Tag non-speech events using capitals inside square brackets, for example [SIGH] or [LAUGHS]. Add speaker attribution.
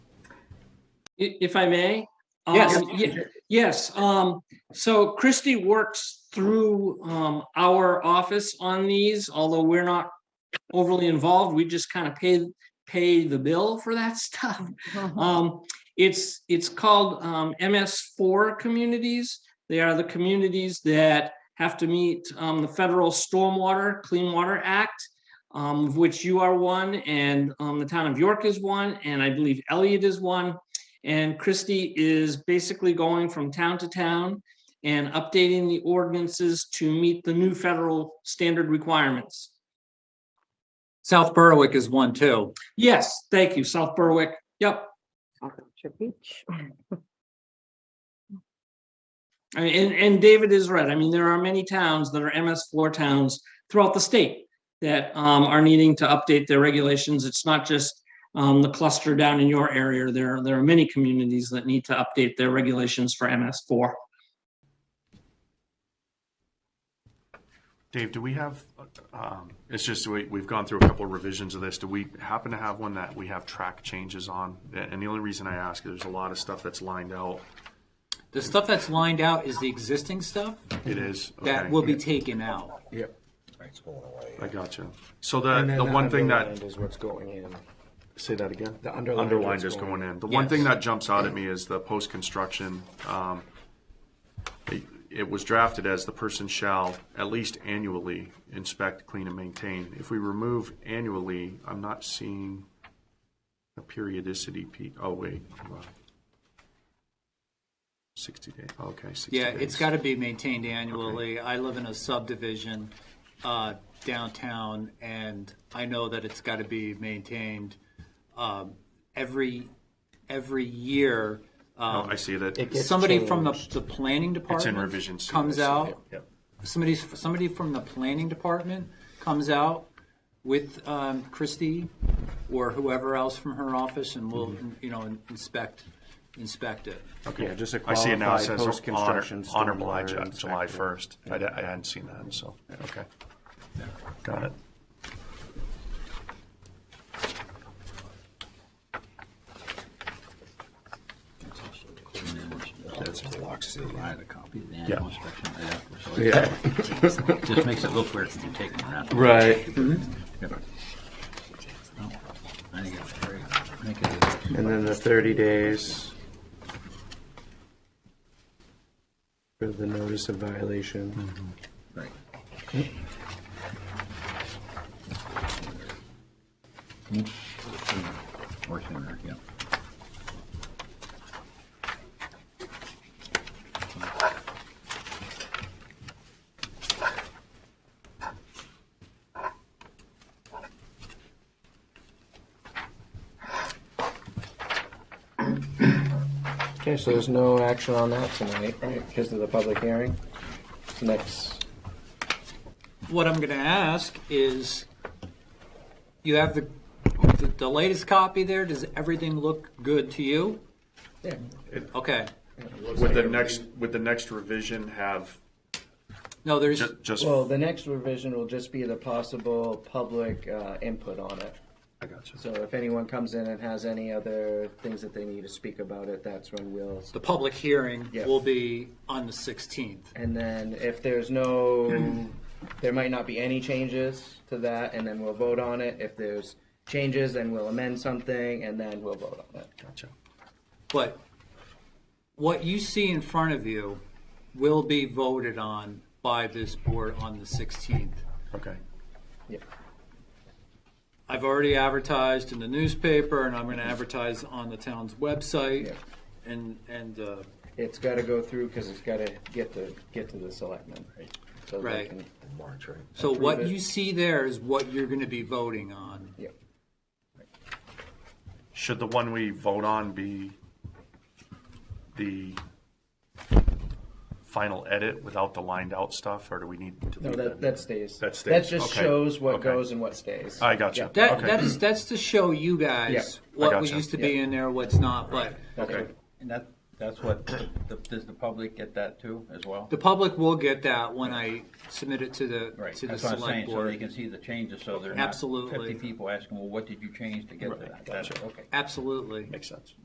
Speaker 1: I- If I may?
Speaker 2: Yes.
Speaker 1: Um, ye- Yes, um, so Christie works through um, our office on these, although we're not overly involved. We just kind of pay, pay the bill for that [LAUGHS] stuff. Um, It's, it's called um, MS4 communities. They are the communities that have to meet um, the federal Stormwater Clean Water Act, um, of which you are one, and um, the town of York is one, and I believe Elliott is one. And Christie is basically going from town to town and updating the ordinances to meet the new federal standard requirements.
Speaker 2: South Berwick is one too.
Speaker 1: Yes, thank you, South Berwick. Yep. I mean, And, and David is right. I mean, there are many towns that are MS floor towns throughout the state that um, are needing to update their regulations. It's not just um, the cluster down in your area. There, are- there are many communities that need to update their regulations for MS four.
Speaker 3: Dave, do we have, um, it's just, we, we've gone through a couple revisions of this. Do we happen to have one that we have track changes on? And the only reason I ask is there's a lot of stuff that's lined out.
Speaker 2: The stuff that's lined out is the existing stuff
Speaker 3: It is.
Speaker 2: that
Speaker 3: okay.
Speaker 2: will be taken out.
Speaker 4: Yep.
Speaker 5: It's going away.
Speaker 3: I got you. So the, Uh, the one thing that,
Speaker 4: Is what's going in.
Speaker 3: say that again?
Speaker 4: The underlined
Speaker 3: Underlined is
Speaker 4: is going
Speaker 3: going in. The one thing
Speaker 2: Yes.
Speaker 3: that jumps out at me is the post-construction, um, it- it was drafted as the person shall at least annually inspect, clean and maintain. If we remove annually, I'm not seeing a periodicity pe, oh, wait. hold on. Sixty day, okay, sixty
Speaker 2: Yeah,
Speaker 3: days.
Speaker 2: it's got to be maintained annually. I live in a subdivision uh, downtown, and I know that it's got to be maintained um, every, every year.
Speaker 3: Oh,
Speaker 2: um,
Speaker 3: I see that.
Speaker 4: It gets
Speaker 2: Somebody from the,
Speaker 4: changed.
Speaker 2: the planning department.
Speaker 3: revision C,
Speaker 2: Comes
Speaker 3: I see,
Speaker 2: out,
Speaker 3: Yep.
Speaker 2: somebody, somebody from the planning department comes out with um, Christie or whoever else from her office and will,
Speaker 3: Mm-hmm.
Speaker 2: you know, inspect, inspect it.
Speaker 3: Okay,
Speaker 4: Yeah, just a
Speaker 3: I see it now, it
Speaker 4: qualified
Speaker 3: says honor,
Speaker 4: post-construction
Speaker 3: honorable
Speaker 4: stormwater
Speaker 3: July, July
Speaker 4: inspector.
Speaker 3: first. I, di- I hadn't seen that, so, okay. Got it.
Speaker 5: That's a Lox City.
Speaker 3: Yeah.
Speaker 4: Yeah.
Speaker 6: Just makes it look weird if you take them out.
Speaker 4: Right.
Speaker 6: I think it's very, I think it is.
Speaker 4: And then the thirty days. For the notice of violation.
Speaker 6: Right. Or sooner, yeah.
Speaker 4: Okay, so there's no action on that tonight, right, because of the public hearing? Next,
Speaker 2: What I'm going to ask is, you have the, the- the latest copy there, does everything look good to you?
Speaker 4: yeah,
Speaker 2: Okay,
Speaker 3: Would the next, would the next revision have
Speaker 2: no, there's,
Speaker 3: ju- just,
Speaker 4: well, the next revision will just be the possible public, uh, input on it.
Speaker 3: I got you.
Speaker 4: So if anyone comes in and has any other things that they need to speak about it, that's when we'll.
Speaker 2: the public hearing
Speaker 4: Yeah.
Speaker 2: will be on the 16th.
Speaker 4: And then if there's no, there might not be any changes to that, and then we'll vote on it. If there's changes, then we'll amend something, and then we'll vote on it.
Speaker 3: Gotcha.
Speaker 2: But what you see in front of you will be voted on by this board on the 16th.
Speaker 3: Okay,
Speaker 4: Yep.
Speaker 2: I've already advertised in the newspaper, and I'm going to advertise on the town's website,
Speaker 4: Yeah.
Speaker 2: and, and, uh,
Speaker 4: It's gotta go through, cause it's gotta get to, get to the selectmen. So they
Speaker 2: Right.
Speaker 4: can-
Speaker 5: March, right?
Speaker 2: so what
Speaker 4: it.
Speaker 2: you see there is what you're going to be voting on.
Speaker 4: Yep.
Speaker 3: should the one we vote on be the final edit without the lined out stuff, or do we need to?
Speaker 4: No,
Speaker 3: leave
Speaker 4: that, that stays.
Speaker 3: That stays,
Speaker 4: That just
Speaker 3: okay,
Speaker 4: shows what
Speaker 3: okay.
Speaker 4: goes and what stays.
Speaker 3: I got you.
Speaker 4: Yeah.
Speaker 2: That,
Speaker 3: Okay.
Speaker 2: that is, that's to show you guys
Speaker 4: Yeah,
Speaker 3: I
Speaker 2: what
Speaker 3: gotcha.
Speaker 2: used to be
Speaker 4: Yeah.
Speaker 2: in there, what's not, but
Speaker 3: Okay,
Speaker 6: And that, that's what, the- does the public get that too, as well?
Speaker 2: the public will get that when I submit it to the,
Speaker 6: Right,
Speaker 2: to the
Speaker 6: that's what I'm saying,
Speaker 2: select
Speaker 6: so they
Speaker 2: board.
Speaker 6: can see the changes, so they're not
Speaker 2: Absolutely.
Speaker 6: fifty people asking, well, what did you change to get to
Speaker 3: Right,
Speaker 6: that?
Speaker 3: gotcha.
Speaker 6: That's- Okay.
Speaker 2: Absolutely.
Speaker 3: makes sense.